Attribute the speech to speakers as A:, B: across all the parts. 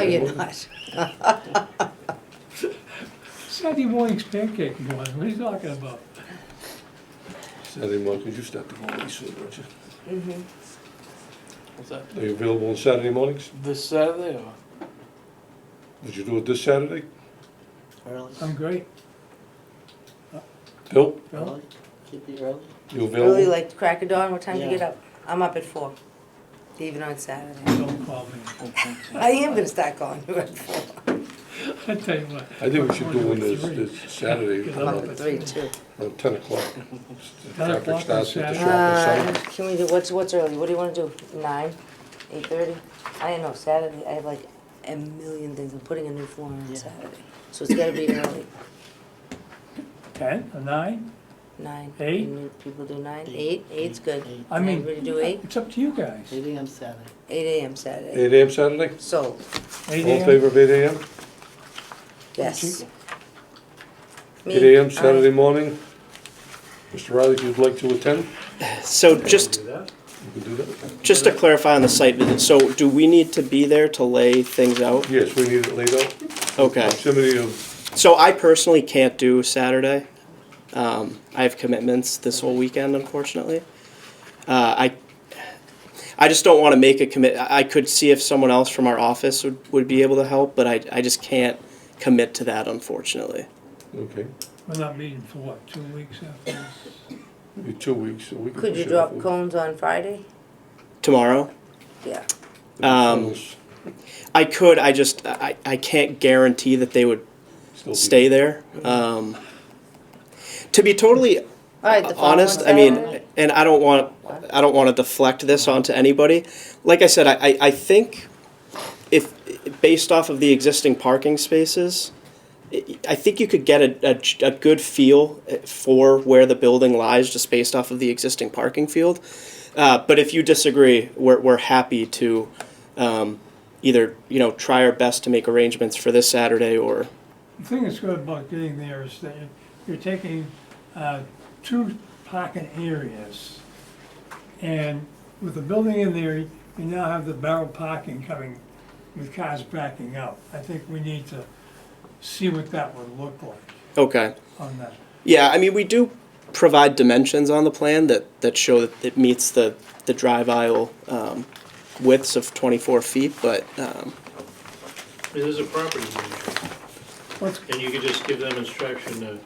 A: No, Oh, you're not.
B: Sunday morning's pancake morning, what are you talking about?
C: Saturday morning, could you start to go away soon, don't you?
D: What's that?
C: Are you available on Saturday mornings?
D: This Saturday or?
C: Would you do it this Saturday?
E: Early,
B: I'm great.
C: Bill,
E: early, keep it early.
C: you
A: Really
C: available?
A: like crack of dawn, what time do you get
E: Yeah.
A: up? I'm up at four, even on Saturday.
B: Don't call me.
A: I am gonna start calling you at four.
B: I tell you what.
C: I think we should do
B: I'm
C: it
B: gonna
C: this,
B: three.
C: this Saturday,
B: Get
A: I'm
B: up
A: up
C: around
A: at three too.
C: around ten o'clock.
B: o'clock on
C: Traffic starts at the
B: Saturday.
C: shop
A: Uh, can we do, what's, what's early, what do you wanna do, nine, eight thirty? I don't know, Saturday, I have like a million things, I'm putting a new floor on
E: Yeah.
A: Saturday, so it's gotta be early,
B: Ten, or nine,
A: nine.
B: Eight?
A: You People do nine, eight,
E: Eight.
A: eight's good.
E: Eight.
B: I mean-
A: Everybody do eight,
B: it's up to you guys.
E: Eight AM Saturday.
A: eight AM
C: at
A: Saturday,
C: seven. Eight AM Saturday?
A: so,
B: Eight
C: All in
B: AM,
C: favor of eight AM?
A: yes. Me, uh,
C: Eight AM
A: aye.
C: Saturday morning? Mr. Riley, if you'd like to attend,
F: So just,
C: you can do that.
F: just to clarify on the site visit, so do we need to be there to lay things out?
C: Yes, we need it laid out.
F: Okay,
C: Proximity of,
F: so I personally can't do Saturday. Um, I have commitments this whole weekend, unfortunately. Uh, I, I just don't wanna make a commit, I I could see if someone else from our office would, would be able to help, but I, I just can't commit to that unfortunately.
C: okay,
B: we're not meeting for what, two weeks after this?
C: maybe two weeks, a week.
A: Could you drop cones on Friday?
F: Tomorrow,
A: Yeah,
F: um, I could, I just, I, I can't guarantee that they would stay there. Um, to be totally
A: alright, the following
F: Uh, honest, I mean,
A: Saturday?
F: and I don't want I don't want to deflect this onto anybody. Like I said, I, I, I think if based off of the existing parking spaces, I- I think you could get a, a, a good feel uh, for where the building lies just based off of the existing parking field. Uh, but if you disagree, we're, we're happy to um, either you know try our best to make arrangements for this Saturday or
B: The thing that's good about getting there is that you're taking, uh, two parking areas. And with the building in there, you now have the barrel parking coming with cars backing out. I think we need to see what that would look like
F: okay.
B: on that.
F: Yeah, I mean, we do provide dimensions on the plan that, that show that it meets the, the drive aisle um, widths of 24 feet, but um,
G: It is a property manager,
B: Let's,
G: and you could just give them instruction to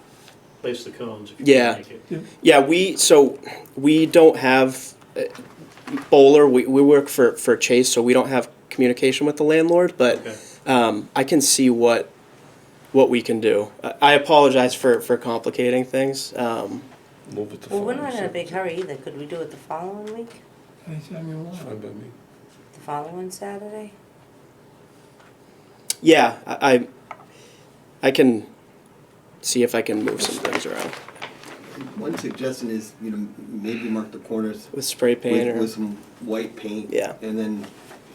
G: place the cones if you
F: Yeah.
G: can make it.
F: yeah, we, so we don't have, uh, Bowler, we, we work for, for Chase, so we don't have communication with the landlord, but
G: Okay.
F: um, I can see what, what we can do. I- I apologize for, for complicating things. Um,
C: Move it to
A: Well, we're not in a
C: Friday,
A: big hurry either, could we do it the following week,
B: anytime you want.
C: so- Fine by me.
A: the following Saturday?
F: yeah, I, I, I can see if I can move some things around
H: One suggestion is, you know, maybe mark the corners
F: with spray paint
H: with,
F: or.
H: with some white paint.
F: Yeah.
H: And then,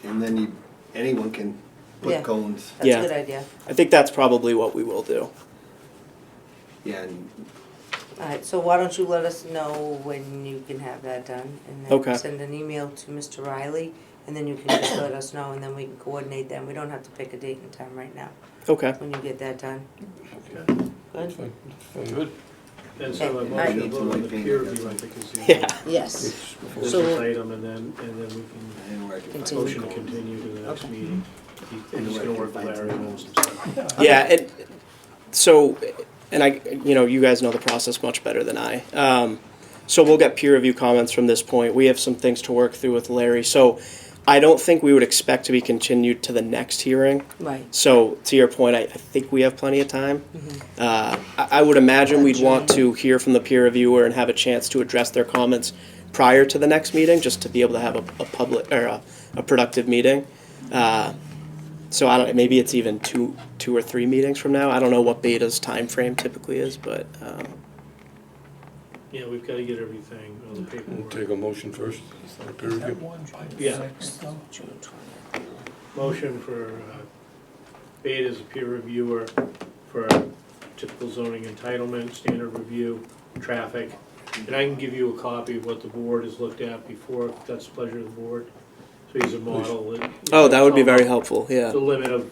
H: and then you, anyone can
A: Yeah.
H: put cones,
A: That's
F: Yeah.
A: a good idea,
F: I think that's probably what we will do.
H: yeah, and
A: alright, so why don't you let us know when you can have that done? And
F: Okay.
A: then send an email to Mr. Riley, and then you can just let us know, and then we can coordinate them, we don't have to pick a date and time right now,
F: Okay.
A: when you get that done.
C: It's
A: Good?
C: fine, it's fine.
G: Good. And so I
A: Okay,
G: want you to
H: alright.
G: vote on the peer review, I think is the.
F: Yeah.
A: Yes,
C: It's
G: This
A: So-
G: item, and then, and then we Mm-hmm.
H: anywhere I can
G: can
A: Continue.
G: motion
H: find
G: to
H: cones.
G: continue to the next
A: Okay.
G: meeting. He- And he's gonna work with Larry on some stuff.
F: Yeah, and so, and I, you know, you guys know the process much better than I. Um, so we'll get peer review comments from this point. We have some things to work through with Larry. So I don't think we would expect to be continued to the next hearing.
A: right,
F: So to your point, I, I think we have plenty of time. Uh, I, I would imagine we'd want to hear from the peer reviewer and have a chance to address their comments prior to the next meeting, just to be able to have a, a public, or a, a productive meeting. Uh, so I don't, maybe it's even two, two or three meetings from now. I don't know what Beta's time frame typically is, but, um,
G: Yeah, we've gotta get everything on the
C: We'll take
G: paperwork.
C: a motion first. Peer review.
G: Yeah.
B: So,
A: June twentieth.
G: Motion for, uh, Beta as a peer reviewer for typical zoning entitlement, standard review, traffic. And I can give you a copy of what the board has looked at before, if that's the pleasure of the board. So he's a model.
F: oh, that would Oh, be very helpful, yeah.
G: The limit of